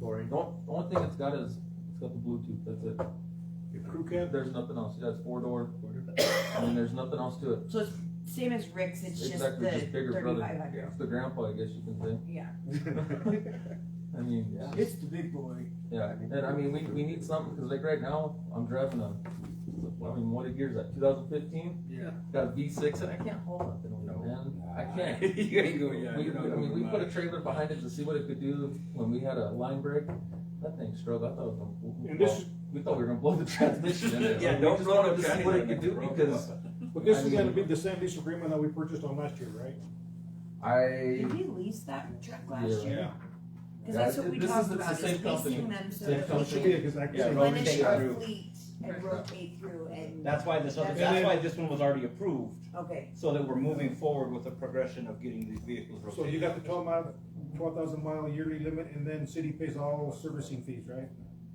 The only, the only thing it's got is, it's got the Bluetooth, that's it. Your crew cab? There's nothing else, yeah, it's four door, I mean, there's nothing else to it. So it's same as Rick's, it's just Exactly, the just bigger thirty-five brother, hundred. it's the grandpa, I guess you can say. Yeah, I mean, yeah. It's the big boy. Yeah, and I mean, we, we need something, cause like right now, I'm driving a, I mean, what year is that, two thousand fifteen? Yeah. Got a V six and I can't haul nothing with it, man, I can't. you ain't going, yeah. We, you're we- not I gonna mean, we put a buy it. trailer behind it to see what it could do when we had a line break, that thing struggled, I thought it was gonna. And this is- We thought we were gonna blow the transmission in it. Yeah, We don't just blow wanted the to see What it could do, transmission. because But this I is gonna mean- be the same lease agreement that we purchased on last year, right? I, did we lease that truck last Yeah. year? Cause Yeah, that's what we this is- talked it's the about, is same company. leasing them so Same that we company. can Yeah, 'cause I- Yeah, replenish rotate our through. fleet and rotate through and. That's why this other, And that's then- why this one was already approved, Okay, so that we're moving forward with the progression of getting these vehicles So you rotated. got the twelve mile, twelve thousand mile yearly limit, and then city pays all servicing fees, right?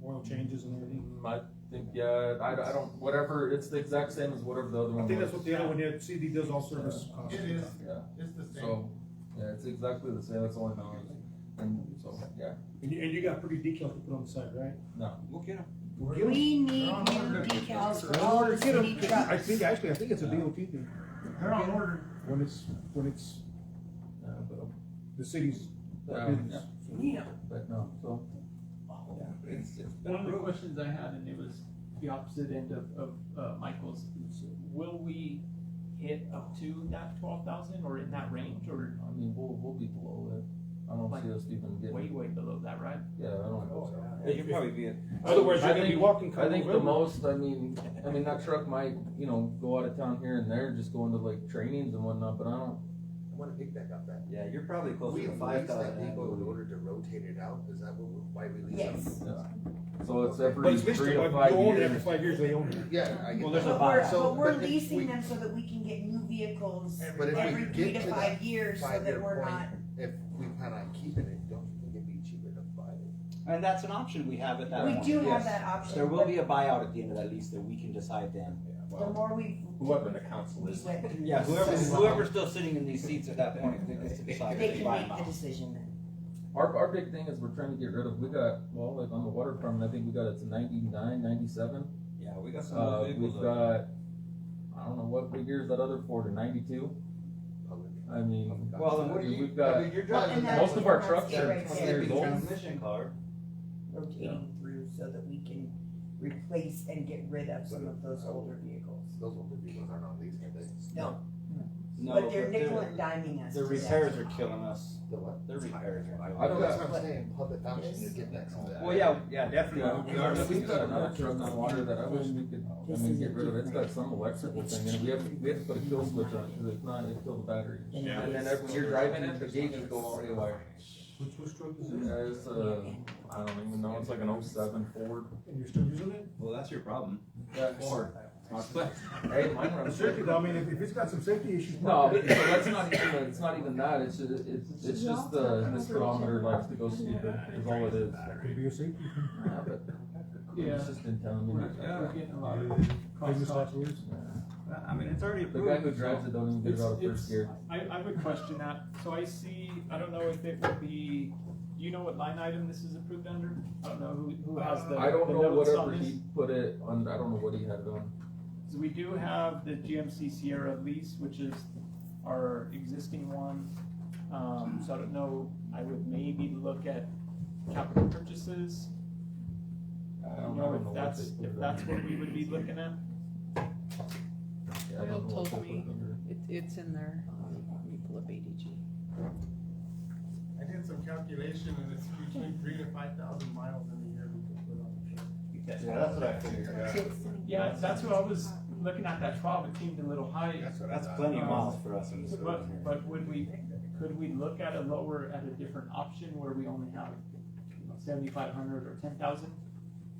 Oil changes and everything. mm, I think, yeah, I, I don't, whatever, it's the exact same as whatever the other one was. I think that's what the other one did, CD does all service costs. It is, Yeah. it's the same. So, yeah, it's exactly the same, it's only ours, and so, yeah, And you, and you got pretty decals to put on the side, right? no. We'll get 'em. we need new decals for all the city trucks. I think, actually, I think it's a DOT thing, They're on order. when it's, when it's Yeah, but, uh, the city's Yeah. business. Yeah. but no, so. yeah, it's- it's been One of the real- questions I had, and it was the opposite end of, of, uh, Michael's, is will we hit up to that twelve thousand or in that range or I mean, we'll, we'll be below it, I don't see us even way, getting, way below that, right? yeah, I don't know. Yeah, You'll probably be at Otherwise, I you're gonna be think- walking. I come think the November. most, I mean, I mean, that truck might, you know, go out of town here and there, just going to like trainings and whatnot, but I don't, I wanna pick that up then. Yeah, you're probably We closer to five lease that thousand. vehicle in order to rotate it out, is that what, we- why we lease it? Yes, so it's But every it's three basically, to like, five you own it every years. five years, they own it. Yeah, I Well, get there's that. but a we're, box. So, but we're but if we- leasing them so that we can get new vehicles But if we every three get to to that five years, so that five-year we're point, not, If we plan on keeping it, don't you think it'd be cheaper to buy it? And that's an option we have at that we point. do have yes. that option. There will but be a buyout at the end of that lease that we can decide then. The more we. Whoever the council we is. went, Yeah, whoever's, So- whoever's still sitting in these seats at that point, they get to decide They if they can buy them make the out. decision then. Our, our big thing is we're trying to get rid of, we got, well, like on the water department, I think we got it to ninety-nine, ninety-seven. Yeah, we got some Uh, of those we've vehicles. that- got, I don't know, what big year is that other Ford, a ninety-two? Public. I mean, Well, then what I do mean, you? we've got- I mean, you're driving. And that- that's most of our what trucks we're are gonna twenty say right years Sleeping old. Transmission car. Rotating through so that we can replace and get rid of some of those older vehicles. Those older vehicles aren't on lease, are they? No, No, but they're the- nickel and diming us The to death. repairs are killing us. The what? The repairs are. I don't- That's what I'm saying, public option, you get that. Well, yeah, yeah, Yeah, definitely. We are we've looking got at another truck on water that I wish we could, I mean, get rid of, it's got some electrical thing, and we have, we have to put a kill switch on, it, cause if not, it kills the battery. Yeah. And then if- when you're driving it, the gauges go all the way. Which, which truck is this? It's, uh, I don't even know, it's like an oh seven Ford. And you're still using it? Well, that's your problem. Ford. Hey, mine runs. Safety, I mean, if, if it's got some safety issues. No, but so that's not even, it's not even that, it's, ju- it's, it's just the, the speedometer likes to go stupid, is all it is. Could be a safety. Yeah, but Yeah. It's just in town, you We're, know. we're getting a lot of Maybe cross it's talk. not yours. I mean, it's already The approved. guy who so- drives it don't even get It's- it out of it's- first gear. I, I would question that, so I see, I don't know if it would be, do you know what line item this is approved under? I don't know who, who has the. I don't the know notes on whatever this. he put it on, I don't know what he had it on. So we do have the GMC Sierra lease, which is our existing one. Um, so I don't know, I would maybe look at capital purchases, I you don't know, what if that's, they put if it that's on. what we would be looking at. Yeah, I don't know what Bill told they put it me. under. It, it's in there. Let me pull up ADG. I did some calculation and it's between three to five thousand miles in a year we could put on the truck. Yeah, that's what I figured. yeah. Yeah, that's what I was looking at, that twelve, it seemed a little high, That's what That's plenty of miles for us in this. building here. but, but would we, could we look at a lower, at a different option where we only have seventy-five hundred or ten thousand?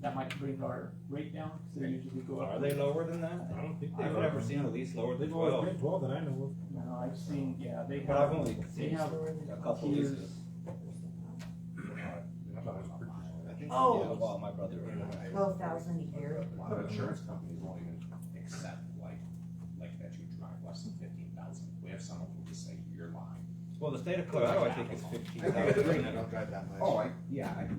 That might bring our rate down, because they usually go up. Are they lower than that? I don't think they I've are. never seen a lease lower than They've always twelve, been twelve that I know No, I've seen, yeah, they but I've have, only they seen have, a couple Years. leases. I think Oh. yeah, well, my brother. Twelve thousand a year. A lot of insurance companies won't even accept like, like that you drive less than fifteen thousand. We have someone who just say, you're lying. Well, the state of Colorado, I think is fifteen I thousand. don't drive that much. Oh, I, yeah, I